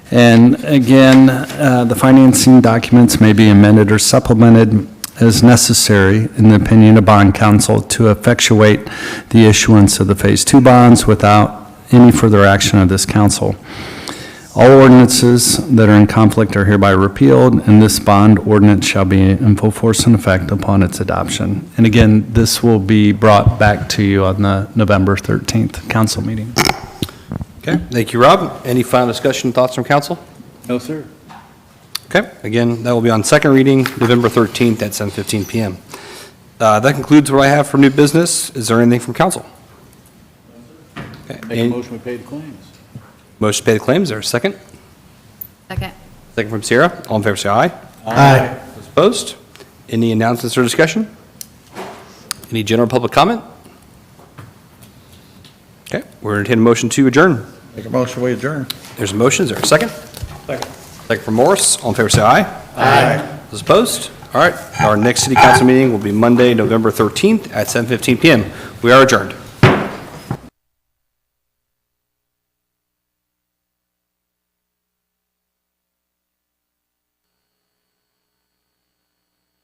And again, uh, the financing documents may be amended or supplemented as necessary, in the opinion of bond counsel, to effectuate the issuance of the Phase 2 bonds without any further action of this council. All ordinances that are in conflict are hereby repealed, and this bond ordinance shall be in full force and effect upon its adoption. And again, this will be brought back to you on the November 13th council meeting. Okay, thank you, Rob. Any final discussion, thoughts from council? No, sir. Okay, again, that will be on second reading, November 13th at 7:15 PM. Uh, That concludes what I have for new business. Is there anything from council? Okay, Make a any- motion, we pay the claims. Motion to pay the claims, is there a second? Second. Second from Sierra, all in favor, say aye. Aye. Those Opposed? Any announcements or discussion? Any general public comment? Okay, we're entertaining a motion to adjourn. Make a motion, we adjourn. There's a motion, is there a second? Second. Second from Morris, all in favor, say aye. Aye. Those opposed? All right, our next city council meeting will be Monday, November 13th at 7:15 PM. We are adjourned.